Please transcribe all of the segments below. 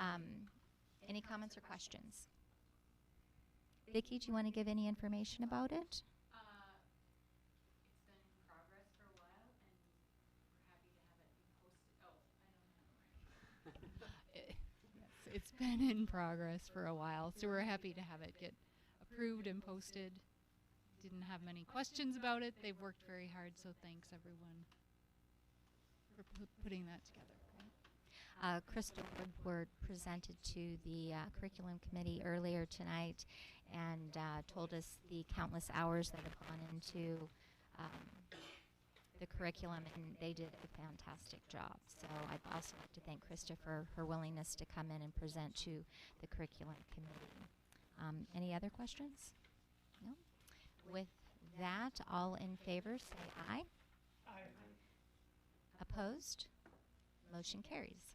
Um, any comments or questions? Vicki, do you want to give any information about it? Uh, it's been in progress for a while, and we're happy to have it be posted. Oh, I don't have it right. Yes, It's been in progress for a while, so we're happy to have it get approved and posted. Didn't have many questions about it. They've worked very hard, so thanks everyone for pu- putting that together. Uh, Crystal Woodward presented to the uh, curriculum committee earlier tonight and uh, told us the countless hours that have gone into um, the curriculum, and they did a fantastic job. So I'd also like to thank Krista for her willingness to come in and present to the curriculum committee. Um, any other questions? No? With that, all in favor say aye. Opposed? Motion carries.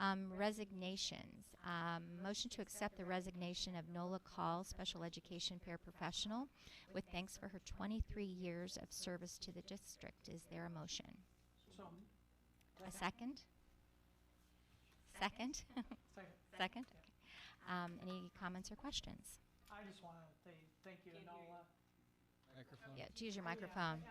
Um, resignations. Um, motion to accept the resignation of Nola Call, special education paraprofessional, with thanks for her 23 years of service to the district. Is there a motion? So moved. A second? Second? Second. second? Okay. Um, any comments or questions? I just want to say thank you to Nola. Microphone. Yeah, to use your microphone.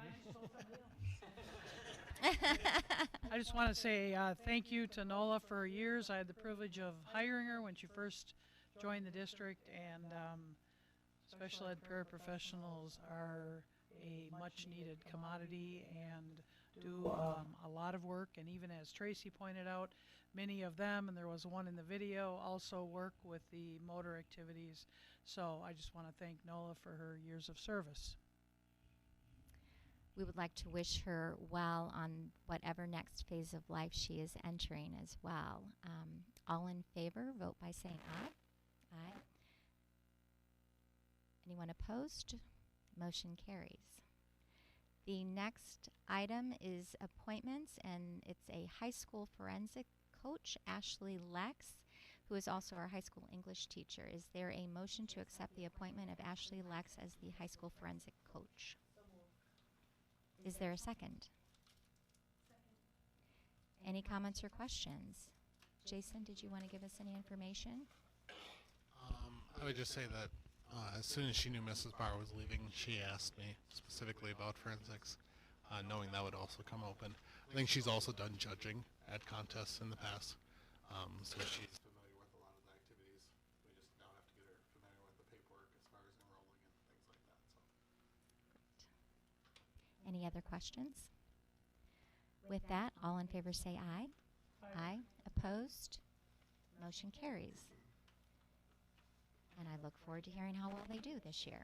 I just want to say uh, thank you to Nola for her years. I had the privilege of hiring her when she first joined the district, and um, special ed paraprofessionals are a much needed commodity and do um, a lot of work. And even as Tracy pointed out, many of them, and there was one in the video, also work with the motor activities. So I just want to thank Nola for her years of service. we would like to wish her well on whatever next phase of life she is entering as well. Um, all in favor, vote by saying aye. Aye. Anyone opposed? Motion carries. The next item is appointments, and it's a high school forensic coach, Ashley Lex, who is also our high school English teacher. Is there a motion to accept the appointment of Ashley Lex as the high school forensic coach? Is there a second? Any comments or questions? Jason, did you want to give us any information? Um, I would just say that uh, as soon as she knew Mrs. Barr was leaving, she asked me specifically about forensics, uh, knowing that would also come open. I think she's also done judging at contests in the past, um, so she's familiar with a lot of the activities. We just now have to get her familiar with the paperwork as far as enrolling and things like that. So. Any other questions? With that, all in favor say aye. Aye. Opposed? Motion carries. And I look forward to hearing how well they do this year.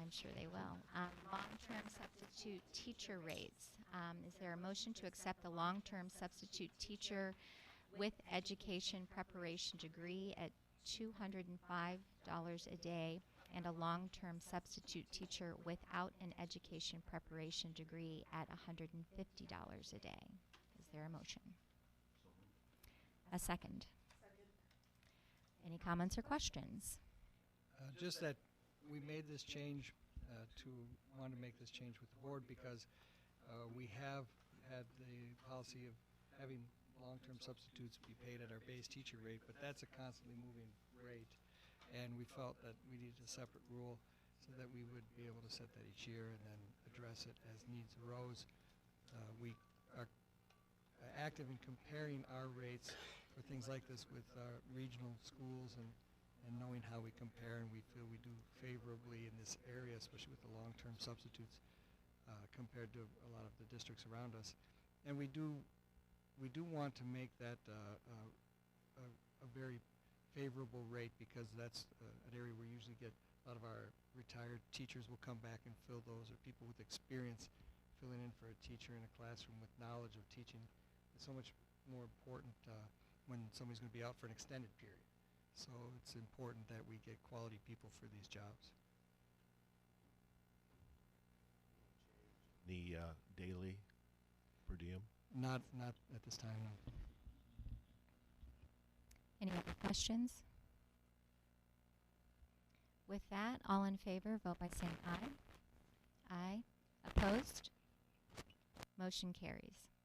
I'm sure they will. Um, long-term substitute teacher rates. Um, is there a motion to accept the long-term substitute teacher with education preparation degree at $205 a day and a long-term substitute teacher without an education preparation degree at $150 a day? Is there a motion? A second. Any comments or questions? Uh, Just that we made this change uh, to, wanted to make this change with the board because uh, we have had the policy of having long-term substitutes be paid at our base teacher rate, but that's a constantly moving rate. And we felt that we needed a separate rule so that we would be able to set that each year and then address it as needs arose. Uh, We are uh, active in comparing our rates for things like this with uh, regional schools and and knowing how we compare, and we feel we do favorably in this area, especially with the long-term substitutes, uh, compared to a lot of the districts around us. And we do, we do want to make that uh, uh, a, a very favorable rate because that's uh, an area we usually get a lot of our retired teachers will come back and fill those, or people with experience filling in for a teacher in a classroom with knowledge of teaching. It's so much more important uh, when somebody's going to be out for an extended period. So it's important that we get quality people for these jobs. the uh, daily per diem. Not, not at this time, no. Any other questions? With that, all in favor, vote by saying aye. Aye. Opposed? Motion carries.